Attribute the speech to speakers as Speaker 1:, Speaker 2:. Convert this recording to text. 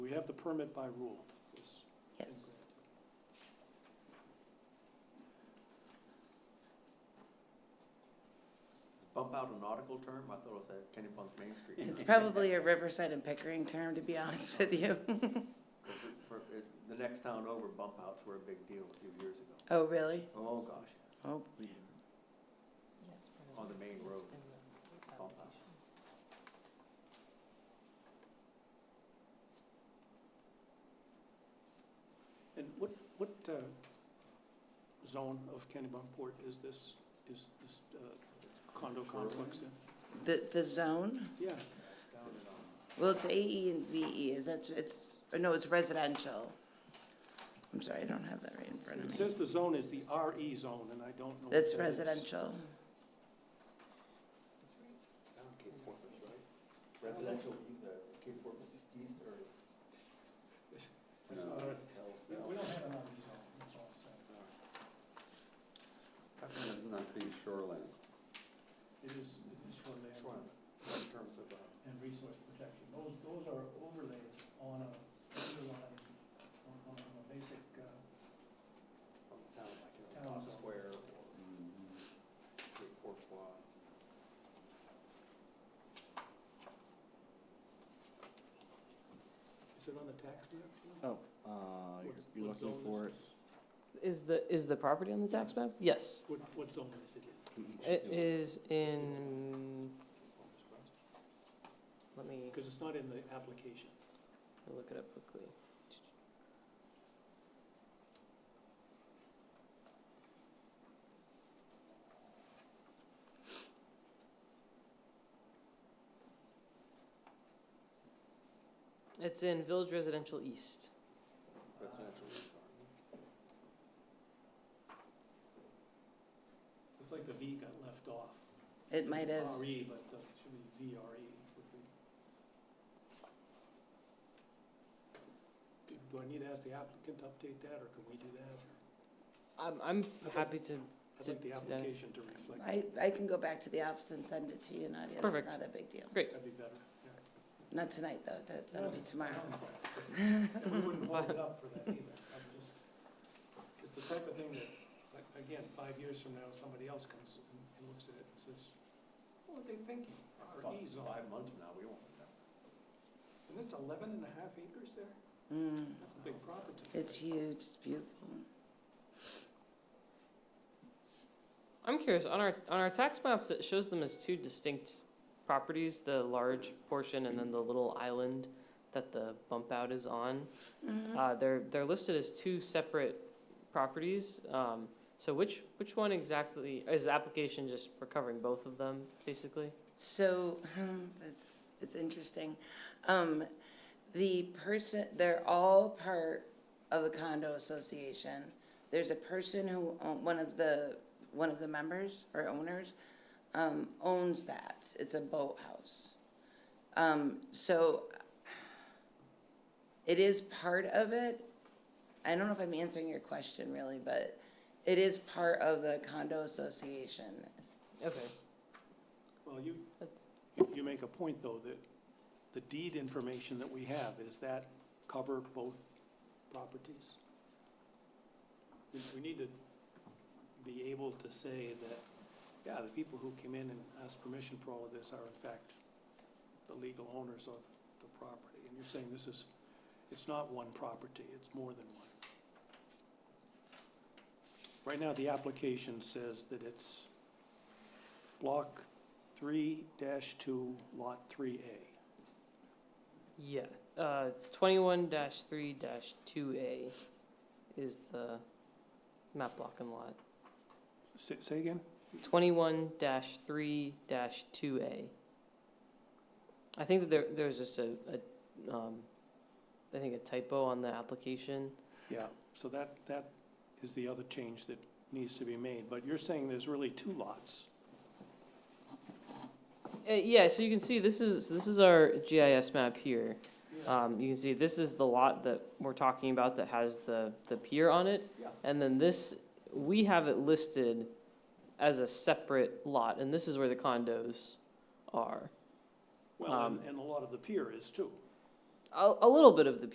Speaker 1: we have the permit by rule. It's been
Speaker 2: Yes.
Speaker 1: granted.
Speaker 3: Is bump out a nautical term? I thought it was at Kennebunk's Main Street.
Speaker 2: It's probably a Riverside and Pickering term, to be honest with you.
Speaker 3: 'Cause it- for- it- The next town over, bump outs were a big deal a few years ago.
Speaker 2: Oh, really?
Speaker 3: Oh, gosh, yes.
Speaker 2: Oh, boy.
Speaker 3: On the main road. Bump outs.
Speaker 1: And what, what uh, zone of Kennebunkport is this, is this uh, condo complex in?
Speaker 2: The, the zone?
Speaker 1: Yeah,
Speaker 3: It's down in, um,
Speaker 2: Well, it's AE and VE, is that, it's, or no, it's residential. I'm sorry, I don't have that right in front
Speaker 1: it
Speaker 2: of me.
Speaker 1: says the zone is the RE zone, and I don't know. what
Speaker 2: That's
Speaker 1: that is.
Speaker 2: residential.
Speaker 3: down Cape Porpoise, right? Residential, the Cape Porpoise is east or?
Speaker 1: No.
Speaker 3: Hell's Uh,
Speaker 4: We
Speaker 3: Bell.
Speaker 4: we don't have an RV zone, that's all I'm saying.
Speaker 5: How come it's not being shoreline?
Speaker 1: It is, it is shoreline.
Speaker 3: Shoreline. In terms of, uh,
Speaker 4: And resource protection, those, those are overlays on a, underlying, on, on a basic, uh,
Speaker 3: from the town, like, you know,
Speaker 4: Town
Speaker 3: Town Mm-hmm.
Speaker 4: zone.
Speaker 3: Square or Cape Porpoise.
Speaker 1: Is it on the tax map?
Speaker 6: Oh, uh,
Speaker 1: What-
Speaker 6: you're
Speaker 1: what
Speaker 6: looking
Speaker 1: zone is
Speaker 6: for it.
Speaker 1: this?
Speaker 7: Is the, is the property on the tax map? Yes.
Speaker 1: What, what zone is it in?
Speaker 7: It is in, let me
Speaker 1: Because it's not in the application.
Speaker 7: I'll look it up quickly. It's in Village Residential East.
Speaker 3: Residential. east, aren't they?
Speaker 1: It's like the V got left off.
Speaker 2: It might have,
Speaker 1: RE, but uh, it should be VRE. would be. Do- Do I need to ask the applicant to update that, or can we do that?
Speaker 7: I'm, I'm happy to,
Speaker 1: I'd like the
Speaker 7: To- to that.
Speaker 1: application to reflect,
Speaker 2: I, I can go back to the office and send it to you, Nadia, that's
Speaker 7: Perfect.
Speaker 2: not a big deal.
Speaker 1: that'd be better, yeah.
Speaker 2: Not tonight, though, that, that'll be tomorrow.
Speaker 1: And we wouldn't hold it up for that either, I'm just, it's the type of thing that, like, again, five years from now, somebody else comes and and looks at it and says, what were they thinking?
Speaker 3: About
Speaker 1: RE zone,
Speaker 3: Five months from now, we won't know.
Speaker 1: and it's eleven and a half acres there?
Speaker 2: Mm,
Speaker 1: That's a big property.
Speaker 2: It's huge, it's beautiful.
Speaker 7: I'm curious, on our, on our tax maps, it shows them as two distinct properties, the large portion and then the little island that the bump out is on.
Speaker 2: Mhm.
Speaker 7: Uh, they're, they're listed as two separate properties, um, so which, which one exactly, is the application just recovering both of them, basically?
Speaker 2: So, um, that's, it's interesting. Um, the person, they're all part of the condo association. There's a person who, own- one of the, one of the members or owners, um, owns that. It's a boathouse. Um, so it is part of it. I don't know if I'm answering your question really, but it is part of the condo association.
Speaker 7: Okay,
Speaker 1: Well, you,
Speaker 7: that's,
Speaker 1: you- you make a point, though, that the deed information that we have, is that cover both properties? We- We need to be able to say that, yeah, the people who came in and asked permission for all of this are in fact the legal owners of the property. And you're saying this is, it's not one property, it's more than one. Right now, the application says that it's block three dash two, lot three A.
Speaker 7: yeah, uh, twenty-one dash three dash two A is the map block and lot.
Speaker 1: Say, say again?
Speaker 7: twenty-one dash three dash two A. I think that there, there's just a, a, um, I think a typo on the application.
Speaker 1: Yeah, so that, that is the other change that needs to be made, but you're saying there's really two lots.
Speaker 7: Uh, yeah, so you can see this is, this is our GIS map here. Um, you can see this is the lot that we're talking about that has the, the pier on it.
Speaker 3: Yeah.
Speaker 7: And then this, we have it listed as a separate lot, and this is where the condos are.
Speaker 1: Well, and-
Speaker 7: Um,
Speaker 1: and a lot of the pier is too.
Speaker 7: A, a little bit of the